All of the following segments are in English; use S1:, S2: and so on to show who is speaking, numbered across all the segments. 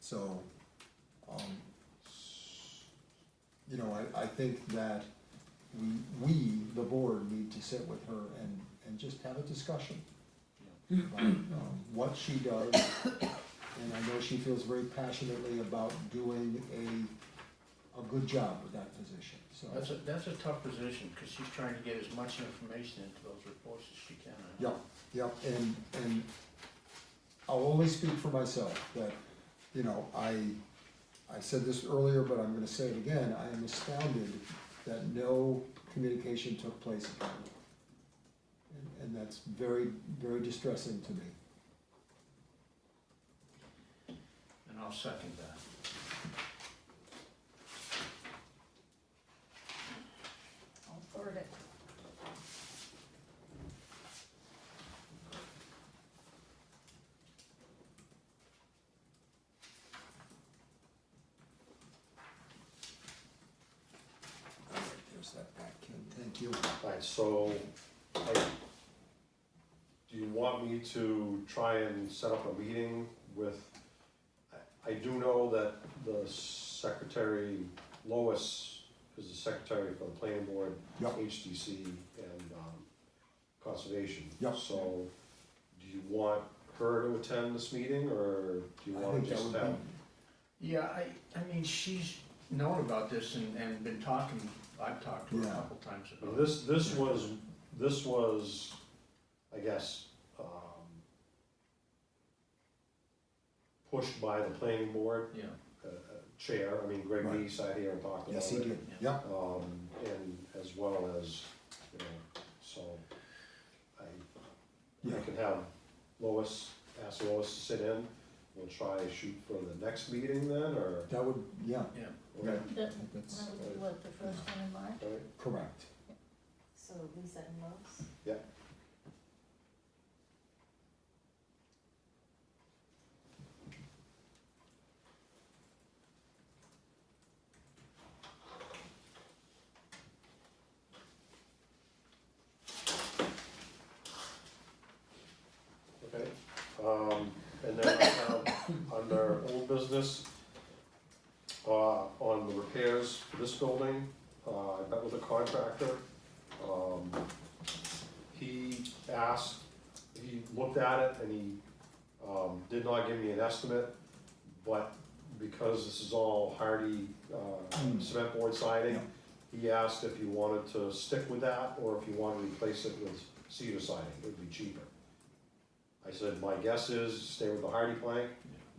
S1: So, um, you know, I, I think that we, we, the board, need to sit with her and, and just have a discussion. About, um, what she does, and I know she feels very passionately about doing a, a good job with that position, so.
S2: That's a, that's a tough position, because she's trying to get as much information into those reports as she can. I know.
S1: Yep, yep, and, and I'll only speak for myself, that, you know, I, I said this earlier, but I'm gonna say it again, I am astounded that no communication took place about it. And- And that's very, very distressing to me.
S2: And I'll second that.
S3: I'll forward it.
S1: All right, there's that back, Ken, thank you.
S4: Alright, so, like, do you want me to try and set up a meeting with, I, I do know that the secretary, Lois is the secretary for the planning board,
S1: Yep.
S4: HDC and, um, conservation.
S1: Yep.
S4: So, do you want her to attend this meeting, or do you
S1: I
S4: wanna
S1: think that
S4: just um,
S1: would be-
S4: have?
S2: Yeah, I, I mean, she's known about this and, and been talking, I've talked to her a
S1: Yeah.
S2: couple times
S4: Well,
S2: about it.
S4: This, this was, this was, I guess, um, pushed by the planning board,
S2: Yeah,
S4: uh, uh, chair, I mean, Greg
S1: Right.
S4: Lee sat here and talked about it.
S1: Yes, he did, yep,
S4: Um, and as well as, you know, so I,
S1: yeah,
S4: I can have Lois, ask Lois to sit in. We'll try to shoot for the next meeting then, or?
S1: that would, yeah,
S2: yeah.
S1: yeah,
S4: Alright,
S1: I think that's
S3: That would be what, the first one in March?
S4: alright.
S1: correct.
S3: So Lisa and Lois?
S4: Yeah. Okay, um, and then I have under old business, uh, on the repairs for this building, uh, I met with a contractor. Um, he asked, he looked at it and he, um, did not give me an estimate, but because this is all hardy, uh,
S1: Mm.
S4: cement board siding, he asked if you wanted to stick with that or if you wanted to replace it with cedar siding, it would be cheaper. I said, my guess is stay with the hardy plank,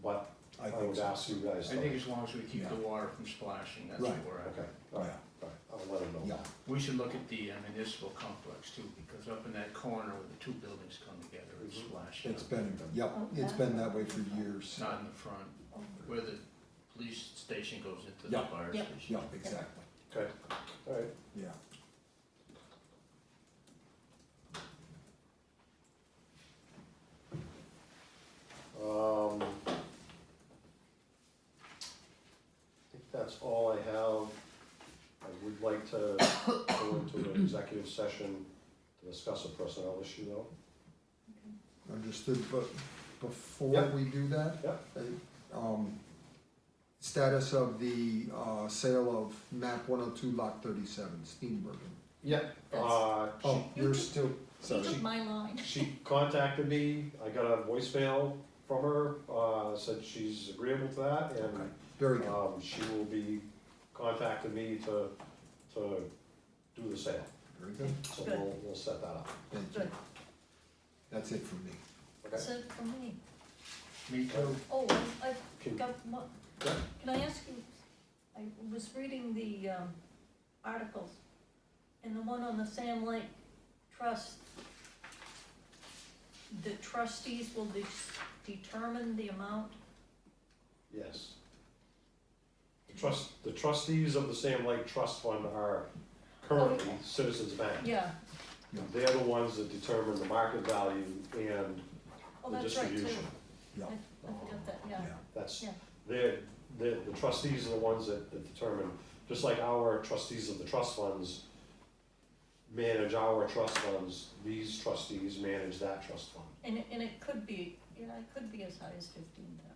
S4: but I
S1: think
S4: would
S1: so.
S4: ask you guys.
S2: I think as long as we keep the
S1: Yeah.
S2: water from splashing, that's
S1: Right.
S2: where
S4: Okay,
S2: I,
S4: alright,
S1: Yeah,
S4: alright, I'll let him know.
S1: yeah,
S2: we should look at the uh, municipal complex too, because up in that corner where the two buildings come together, it's
S4: Mhm.
S2: splashing.
S1: Mm-hmm. it's been, yep, it's been that way for
S2: It's
S1: years,
S2: Not in the front,
S3: Oh,
S2: where the police station goes into the
S1: Yeah.
S2: fire
S3: Yeah.
S2: station.
S1: yeah, exactly,
S4: Okay, alright.
S1: yeah.
S4: Um, I think that's all I have. I would like to go into an executive session to discuss a personnel issue though.
S1: Understood, but before
S4: Yeah.
S1: we do that.
S4: Yeah.
S1: uh, Um, status of the, uh, sale of map one oh two lot thirty-seven, Steenbergen.
S4: Yeah. Uh,
S1: Oh,
S3: You
S1: you're
S3: took-
S1: still,
S3: You
S1: sorry,
S3: took my line.
S4: she, she contacted me, I got a voicemail from her, uh, said she's agreeable to that
S1: Okay.
S4: and
S1: very good,
S4: um, she will be contacting me to, to do the sale.
S1: very good,
S4: So
S3: Good.
S4: we'll, we'll set that up.
S1: thank you.
S3: Good.
S1: That's it from me.
S4: Okay?
S3: So for me,
S2: Me too.
S3: oh, I- I've
S4: Can-
S3: got mo-
S4: Yeah.
S3: can I ask you, I was reading the um, articles, and the one on the Sam Lake Trust, the trustees will de- determine the amount,
S4: Yes. The Trust, the trustees of the Sam Lake Trust Fund are currently
S3: Okay.
S4: Citizens Bank.
S3: yeah,
S4: They're the ones that determine the market value and
S3: oh,
S4: the
S3: that's right, too.
S4: distribution.
S1: Yeah.
S3: I I forgot that, yeah,
S4: That's,
S3: Yeah.
S4: they're, the, the trustees are the ones that, that determine, just like our trustees of the trust funds manage our trust funds, these trustees manage that trust fund.
S3: and it, and it could be, yeah, it could be as high as fifteen thousand.